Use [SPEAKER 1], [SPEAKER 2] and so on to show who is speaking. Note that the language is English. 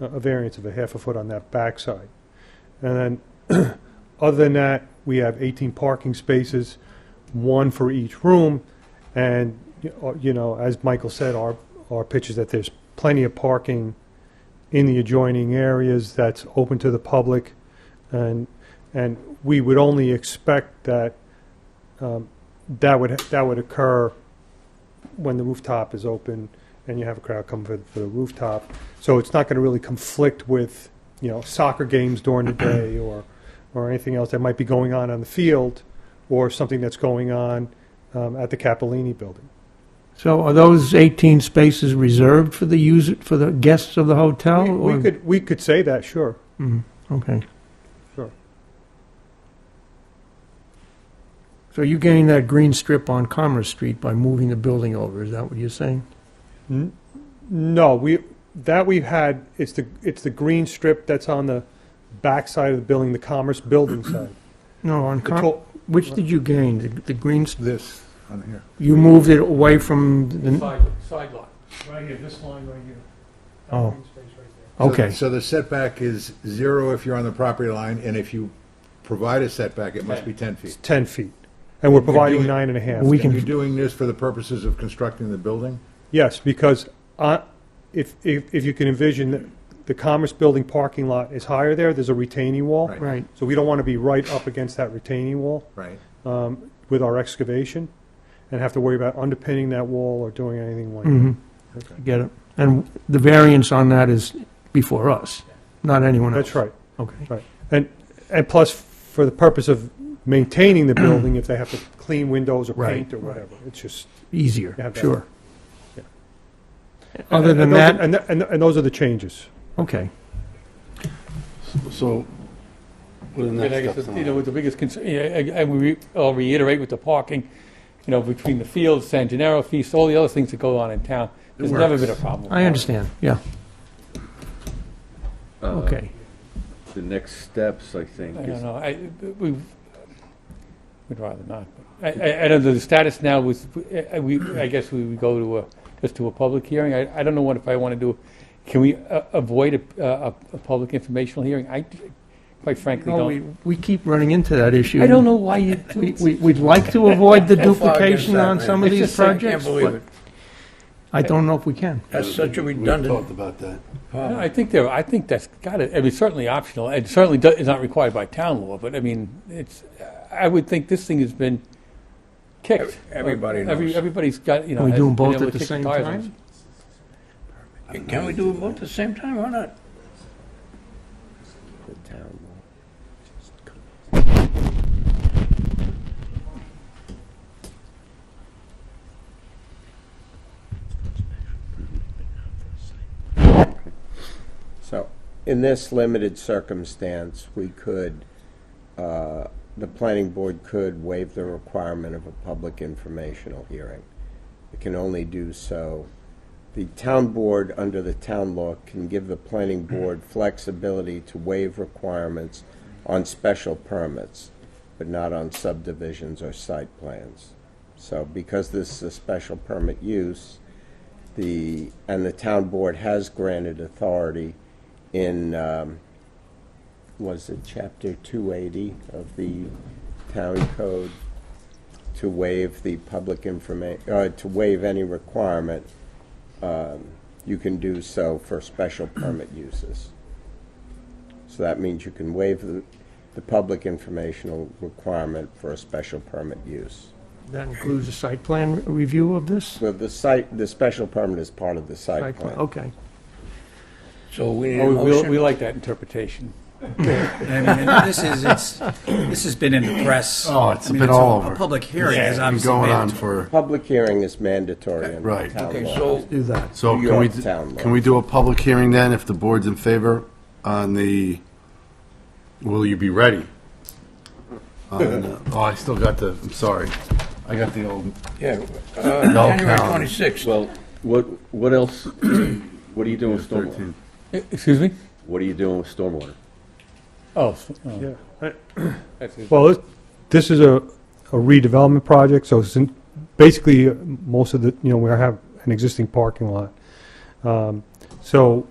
[SPEAKER 1] a a variance of a half a foot on that backside. And then, other than that, we have 18 parking spaces, one for each room. And, y- uh, you know, as Michael said, our, our pitch is that there's plenty of parking in the adjoining areas that's open to the public. And, and we would only expect that, um, that would, that would occur when the rooftop is open and you have a crowd come for, for the rooftop. So it's not going to really conflict with, you know, soccer games during the day or, or anything else that might be going on on the field or something that's going on um, at the Capellini building.
[SPEAKER 2] So are those 18 spaces reserved for the user, for the guests of the hotel?
[SPEAKER 1] We- we,
[SPEAKER 2] or-
[SPEAKER 1] could we could say that, sure.
[SPEAKER 2] Mhm, Okay.
[SPEAKER 1] Sure.
[SPEAKER 2] So you gained that green strip on Commerce Street by moving the building over, is that what you're saying?
[SPEAKER 1] N- no, we that we've had it's the it's the green strip that's on the back side of the building, the Commerce building side.
[SPEAKER 2] No, on,
[SPEAKER 1] The
[SPEAKER 2] Com-
[SPEAKER 1] to-
[SPEAKER 2] which did you gain? The the green, s-
[SPEAKER 3] This on here.
[SPEAKER 2] you moved it away from, the
[SPEAKER 4] Side, side lot.
[SPEAKER 1] right here, this line right here.
[SPEAKER 2] That Oh.
[SPEAKER 1] Green space right there.
[SPEAKER 3] So-
[SPEAKER 2] okay.
[SPEAKER 3] So the setback is zero if you're on the property line, and if you provide a setback, it must be 10
[SPEAKER 1] It's
[SPEAKER 3] feet.
[SPEAKER 1] ten feet, and we're providing
[SPEAKER 3] doing-
[SPEAKER 1] nine and a half.
[SPEAKER 2] We
[SPEAKER 3] And
[SPEAKER 2] can-
[SPEAKER 3] you're doing this for the purposes of constructing the building?
[SPEAKER 1] Yes, because I, if, if, if you can envision, that the Commerce Building parking lot is higher there, there's a retaining wall.
[SPEAKER 3] Right.
[SPEAKER 2] Right,
[SPEAKER 1] So we don't want to be right up against that retaining wall
[SPEAKER 3] Right.
[SPEAKER 1] um, with our excavation and have to worry about underpinning that wall or doing anything like that.
[SPEAKER 2] mhm,
[SPEAKER 3] Okay.
[SPEAKER 2] I get it. And the variance on that is before us, not anyone else?
[SPEAKER 1] That's right.
[SPEAKER 2] Okay.
[SPEAKER 1] And, and plus, for the purpose of maintaining the building, if they have to clean windows or
[SPEAKER 2] Right,
[SPEAKER 1] paint or
[SPEAKER 2] right.
[SPEAKER 1] whatever, it's just. You
[SPEAKER 2] Easier,
[SPEAKER 1] have that.
[SPEAKER 2] sure. Other than
[SPEAKER 1] and those are-
[SPEAKER 2] that,
[SPEAKER 1] And, th- and, th- and those are the changes.
[SPEAKER 2] okay.
[SPEAKER 5] So, what are the
[SPEAKER 4] I mean, I
[SPEAKER 5] next
[SPEAKER 4] guess,
[SPEAKER 5] steps?
[SPEAKER 4] you know,
[SPEAKER 5] on
[SPEAKER 4] with the biggest concern, yeah, I- I- we re- I'll reiterate with the parking, you know, between the fields, San Gennaro feast, all the other things that go on in town. There's never been a problem. with
[SPEAKER 2] I
[SPEAKER 4] that.
[SPEAKER 2] understand, yeah,
[SPEAKER 5] that? Uh,
[SPEAKER 2] okay.
[SPEAKER 5] The next steps, I think,
[SPEAKER 4] I
[SPEAKER 5] is
[SPEAKER 4] don't know, I, we, we'd rather not. I, I, I don't know, the status now was, I, we, I guess we would go to a, just to a public hearing. I, I don't know what if I want to do, can we uh, avoid a, a, a public informational hearing? I, quite frankly,
[SPEAKER 2] No, Oh, we,
[SPEAKER 4] don't.
[SPEAKER 2] we keep running into that issue.
[SPEAKER 4] I don't know why you,
[SPEAKER 2] We, we- we'd like to avoid the duplication on some of
[SPEAKER 6] It's
[SPEAKER 2] these
[SPEAKER 6] just I can't
[SPEAKER 2] projects,
[SPEAKER 6] believe
[SPEAKER 2] but
[SPEAKER 6] it.
[SPEAKER 2] I don't know if we can.
[SPEAKER 6] That's such a
[SPEAKER 5] We
[SPEAKER 6] redundant
[SPEAKER 5] talked about that.
[SPEAKER 4] No, I think there, I think that's got it, I mean, it's certainly optional, and certainly do- is not required by town law, but I mean, it's, I would think this thing has been kicked.
[SPEAKER 6] Everybody
[SPEAKER 4] Every-
[SPEAKER 6] knows.
[SPEAKER 4] Everybody's got, you know.
[SPEAKER 2] Are we
[SPEAKER 4] has
[SPEAKER 2] doing
[SPEAKER 4] been
[SPEAKER 2] both at
[SPEAKER 4] able to
[SPEAKER 2] the
[SPEAKER 4] kick
[SPEAKER 2] same
[SPEAKER 4] tires on
[SPEAKER 2] time?
[SPEAKER 4] it.
[SPEAKER 6] Can we do them both at the same time or not?
[SPEAKER 5] The town law.
[SPEAKER 7] So, in this limited circumstance, we could, uh, the planning board could waive the requirement of a public informational hearing. It can only do so, the town board, under the town law, can give the planning board flexibility to waive requirements on special permits, but not on subdivisions or site plans. So, because this is a special permit use, the, and the town board has granted authority in, um, was it chapter 280 of the town code to waive the public informa, uh, to waive any requirement. Um, You can do so for special permit uses. So that means you can waive the, the public informational requirement for a special permit use.
[SPEAKER 2] That includes a site plan review of this?
[SPEAKER 7] So the site, the special permit is part of the site plan.
[SPEAKER 2] Okay.
[SPEAKER 6] So we need a
[SPEAKER 4] Oh, we- we, we
[SPEAKER 6] motion.
[SPEAKER 4] like that interpretation.
[SPEAKER 8] I mean, and this is, it's, this has been in the press.
[SPEAKER 5] Oh, it's
[SPEAKER 8] I mean,
[SPEAKER 5] been
[SPEAKER 8] a-
[SPEAKER 5] all over.
[SPEAKER 8] A public hearing is
[SPEAKER 5] Been
[SPEAKER 8] obviously.
[SPEAKER 5] going on
[SPEAKER 8] mandatory.
[SPEAKER 5] for,
[SPEAKER 7] Public hearing is mandatory in
[SPEAKER 5] Right.
[SPEAKER 7] town
[SPEAKER 6] Okay,
[SPEAKER 7] law.
[SPEAKER 6] so
[SPEAKER 2] Do that.
[SPEAKER 5] so
[SPEAKER 7] New
[SPEAKER 5] can we,
[SPEAKER 7] York
[SPEAKER 5] d-
[SPEAKER 7] town law.
[SPEAKER 5] can we do a public hearing then, if the board's in favor on the, will you be ready? On, uh, Oh, I still got the, I'm sorry, I got the old.
[SPEAKER 6] Yeah, uh,
[SPEAKER 5] No,
[SPEAKER 6] January
[SPEAKER 5] no.
[SPEAKER 6] 26th.
[SPEAKER 9] Well, what, what else, what are you doing with stormwater?
[SPEAKER 5] 13.
[SPEAKER 4] E- Excuse me?
[SPEAKER 9] What are you doing with stormwater?
[SPEAKER 4] Oh, s- oh,
[SPEAKER 1] Yeah.
[SPEAKER 4] that's it.
[SPEAKER 1] Well, this- this is a a redevelopment project, so sin- basically, uh, most of the, you know, we have an existing parking lot. Um, So